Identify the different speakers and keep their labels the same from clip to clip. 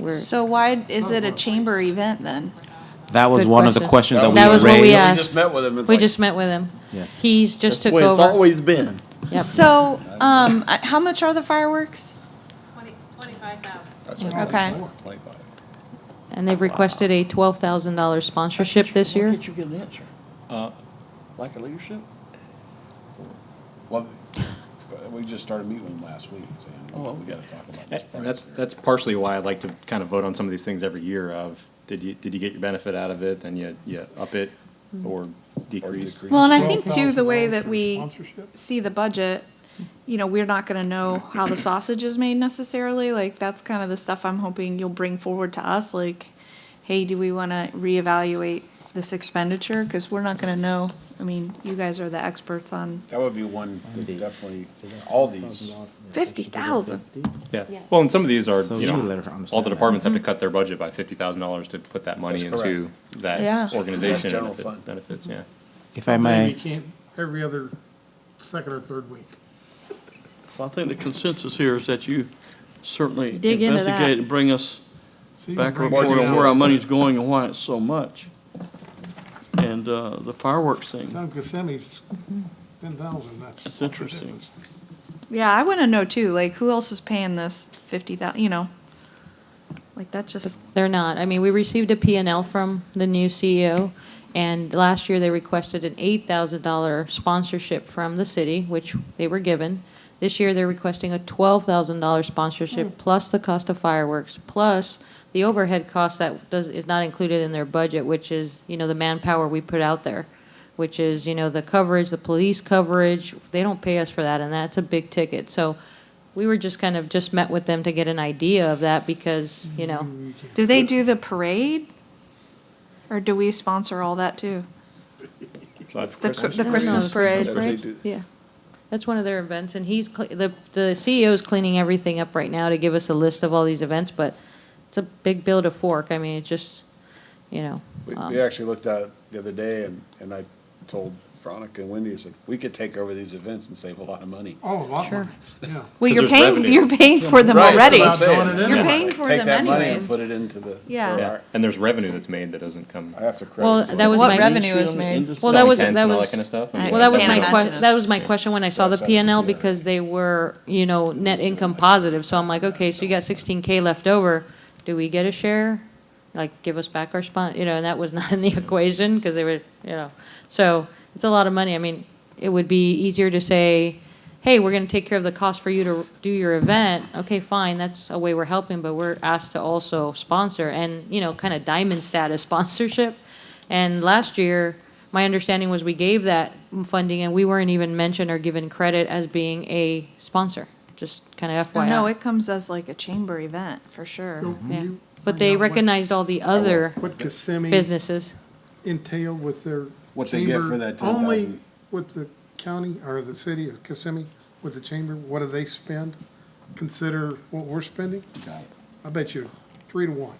Speaker 1: we're,
Speaker 2: So why is it a chamber event then?
Speaker 3: That was
Speaker 1: Good
Speaker 3: one of the
Speaker 1: question.
Speaker 3: questions that we
Speaker 1: That was what we
Speaker 3: raised.
Speaker 1: asked.
Speaker 4: We just met with him. It's
Speaker 1: we
Speaker 4: like-
Speaker 1: just met with him.
Speaker 3: Yes.
Speaker 1: He's just
Speaker 5: That's
Speaker 1: took
Speaker 5: the way It's
Speaker 1: over.
Speaker 5: always been.
Speaker 1: Yep.
Speaker 2: So, um, I- how much are the fireworks?
Speaker 6: Twenty, twenty-five thousand.
Speaker 4: That's what it was.
Speaker 2: Okay.
Speaker 4: Twenty-five.
Speaker 1: And they've requested a twelve thousand dollar sponsorship this
Speaker 5: Why
Speaker 1: year.
Speaker 5: can't you get an answer?
Speaker 4: Lack of leadership? Well, we just started meeting with him last week,
Speaker 5: Oh,
Speaker 4: saying, we gotta talk about this.
Speaker 7: And
Speaker 4: price
Speaker 7: that's,
Speaker 4: here."
Speaker 7: that's partially why I like to kind of vote on some of these things every year of, did you, did you get your benefit out of it, then you, you up it or decrease?
Speaker 4: decrease.
Speaker 2: Well, and I think too, the way
Speaker 8: $12,000
Speaker 2: that
Speaker 8: for
Speaker 2: we
Speaker 8: sponsorship?
Speaker 2: see the budget, you know, we're not gonna know how the sausage is made necessarily, like, that's kind of the stuff I'm hoping you'll bring forward to us, like, hey, do we wanna reevaluate this expenditure, cause we're not gonna know, I mean, you guys are the experts on
Speaker 4: That would be one that definitely, all these,
Speaker 2: fifty thousand.
Speaker 7: Yeah, well, and some of these are,
Speaker 3: So you
Speaker 7: you
Speaker 3: let
Speaker 7: know,
Speaker 3: her understand
Speaker 7: all the
Speaker 3: that.
Speaker 7: departments have to cut their budget by fifty thousand dollars to put that money
Speaker 4: That's
Speaker 7: into
Speaker 2: Yeah.
Speaker 7: that
Speaker 4: That's
Speaker 7: organization
Speaker 4: general
Speaker 7: and if
Speaker 4: fund.
Speaker 7: it benefits, yeah.
Speaker 3: If I
Speaker 8: Maybe
Speaker 3: may,
Speaker 8: can't, every other second or third week.
Speaker 5: Well, I think the consensus here is that you certainly
Speaker 2: Dig into that.
Speaker 5: investigate and bring us
Speaker 8: See,
Speaker 5: back
Speaker 8: we
Speaker 5: and
Speaker 8: break
Speaker 5: forth
Speaker 8: it
Speaker 5: on
Speaker 8: down.
Speaker 5: where our money's going and why it's so much. And uh, the fireworks thing,
Speaker 8: Now Gosemi's ten thousand, that's.
Speaker 5: It's interesting.
Speaker 2: Yeah, I wanna know too, like, who else is paying this fifty thou, you know? Like, that just,
Speaker 1: They're not. I mean, we received a P and L from the new CEO, and last year they requested an eight thousand dollar sponsorship from the city, which they were given. This year, they're requesting a twelve thousand dollar sponsorship plus the cost of fireworks, plus the overhead cost that does, is not included in their budget, which is, you know, the manpower we put out there, which is, you know, the coverage, the police coverage. They don't pay us for that, and that's a big ticket. So we were just kind of, just met with them to get an idea of that because, you know,
Speaker 2: do they do the parade? Or do we sponsor all that too? The, cr- the Christmas parade,
Speaker 4: That's what they
Speaker 2: right?
Speaker 4: do.
Speaker 1: Yeah. That's one of their events, and he's, cle- the, the CEO's cleaning everything up right now to give us a list of all these events, but it's a big bill to fork. I mean, it just, you know.
Speaker 4: We,
Speaker 1: um,
Speaker 4: we actually looked at it the other day and, and I told Veronica and Wendy, I said, we could take over these events and save a lot of money.
Speaker 8: Oh, a lot more, yeah.
Speaker 2: Well,
Speaker 7: 'Cause
Speaker 2: you're
Speaker 7: there's
Speaker 2: paying,
Speaker 7: revenue.
Speaker 2: you're paying for them
Speaker 4: Right, that's
Speaker 2: already.
Speaker 4: what I'm saying.
Speaker 8: You're
Speaker 2: You're paying for
Speaker 4: Take
Speaker 2: them
Speaker 4: that money and
Speaker 2: anyways.
Speaker 4: put it into the.
Speaker 2: Yeah.
Speaker 4: so
Speaker 7: Yeah,
Speaker 4: our-
Speaker 7: and there's revenue that's made that doesn't come.
Speaker 4: I have to credit.
Speaker 1: Well, that was
Speaker 2: What
Speaker 1: my.
Speaker 2: revenue is
Speaker 5: Shoot 'em
Speaker 2: made?
Speaker 5: into
Speaker 1: Well, that was,
Speaker 7: Tents and
Speaker 1: that
Speaker 7: all
Speaker 1: was.
Speaker 7: that kind of stuff?
Speaker 2: I-
Speaker 1: Well, that was
Speaker 2: Can't
Speaker 1: my
Speaker 2: imagine
Speaker 1: que-
Speaker 2: it.
Speaker 1: that was my question when I saw the
Speaker 4: Yeah.
Speaker 1: P and L because they were, you know, net income positive. So I'm like, okay, so you got sixteen K left over. Do we get a share? Like, give us back our spon, you know, and that was not in the equation because they were, you know. So it's a lot of money. I mean, it would be easier to say, hey, we're gonna take care of the cost for you to do your event. Okay, fine, that's a way we're helping, but we're asked to also sponsor and, you know, kind of diamond status sponsorship. And last year, my understanding was we gave that funding and we weren't even mentioned or given credit as being a sponsor, just kind of FYI.
Speaker 2: No, it comes as like a chamber event, for sure.
Speaker 4: Mm-hmm.
Speaker 1: Yeah.
Speaker 8: You
Speaker 1: But
Speaker 8: find
Speaker 1: they
Speaker 8: out what-
Speaker 1: recognized all the other
Speaker 8: What Gosemi
Speaker 1: businesses.
Speaker 8: entailed with their.
Speaker 4: What they get
Speaker 8: chamber,
Speaker 4: for that
Speaker 8: Only
Speaker 4: 10,000.
Speaker 8: with the county or the city of Kissimmee, with the chamber, what do they spend? Consider what we're spending?
Speaker 4: Got it.
Speaker 8: I bet you three to one.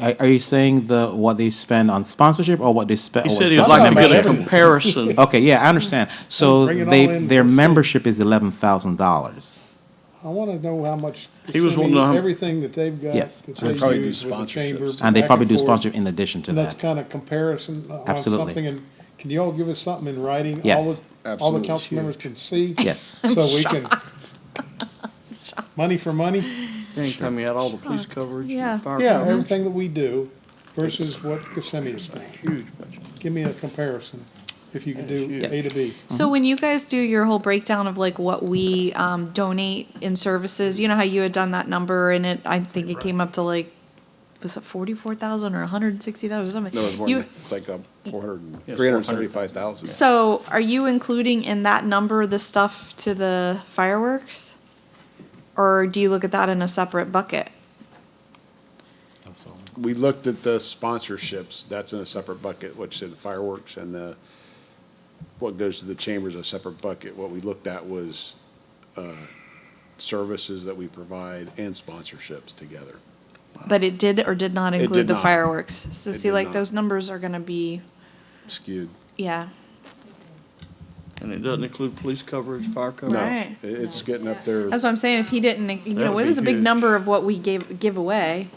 Speaker 3: are are you saying the, what they spend on sponsorship or what they spend?
Speaker 5: He said he'd like to get a comparison.
Speaker 3: Okay, yeah, I understand. So
Speaker 8: Bring it all
Speaker 3: they,
Speaker 8: in,
Speaker 3: their
Speaker 8: let's see.
Speaker 3: membership is eleven thousand dollars.
Speaker 8: I want to know how much.
Speaker 5: He was wanting to know
Speaker 8: Kissimmee,
Speaker 5: how-
Speaker 8: Everything that they've got.
Speaker 3: Yes.
Speaker 8: that
Speaker 4: And
Speaker 8: they
Speaker 4: probably do
Speaker 8: use with the chamber,
Speaker 4: sponsorships.
Speaker 3: And they
Speaker 8: back
Speaker 3: probably do
Speaker 8: forth.
Speaker 3: sponsorship in addition to
Speaker 8: And that's
Speaker 3: that.
Speaker 8: kind of comparison uh, on
Speaker 3: Absolutely.
Speaker 8: something, and can you all give us something in writing? All
Speaker 3: Yes.
Speaker 8: the- All the
Speaker 4: Absolutely.
Speaker 8: council members can see?
Speaker 3: Yes.
Speaker 8: So we can, money for money,
Speaker 5: Anytime you had all the police coverage
Speaker 2: Yeah.
Speaker 5: and fire
Speaker 8: yeah,
Speaker 5: coverage.
Speaker 8: everything that we do versus what Kissimmee is doing.
Speaker 5: Huge budget.
Speaker 8: Give me a comparison, if you can do
Speaker 5: Yes.
Speaker 8: A to B.
Speaker 4: Mm-hmm.
Speaker 2: So when you guys do your whole breakdown of like what we um, donate in services, you know how you had done that number and it, I think it came up to like, was it forty-four thousand or a hundred and sixty thousand or something?
Speaker 4: No, it's more
Speaker 2: You-
Speaker 4: than, that. it's like, um, four hundred,
Speaker 5: Yeah,
Speaker 4: three hundred and seventy-five thousand.
Speaker 2: So are you including in that number the stuff to the fireworks? Or do you look at that in a separate bucket?
Speaker 4: We looked at the sponsorships, that's in a separate bucket, which is fireworks and, uh, what goes to the chambers, a separate bucket. What we looked at was, uh, services that we provide and sponsorships together.
Speaker 2: But it did or did not
Speaker 4: It
Speaker 2: include
Speaker 4: did
Speaker 2: the
Speaker 4: not.
Speaker 2: fireworks. So
Speaker 4: It
Speaker 2: see,
Speaker 4: did
Speaker 2: like,
Speaker 4: not.
Speaker 2: those numbers are gonna be,
Speaker 4: Skewed.
Speaker 2: yeah.
Speaker 5: And it doesn't include police coverage, fire
Speaker 4: No,
Speaker 5: coverage.
Speaker 2: Right.
Speaker 4: it- it's getting up there.
Speaker 2: That's what I'm saying, if he didn't, you
Speaker 5: That
Speaker 2: know,
Speaker 5: would
Speaker 2: it
Speaker 5: be
Speaker 2: was a big
Speaker 5: huge.
Speaker 2: number of what we gave, give away.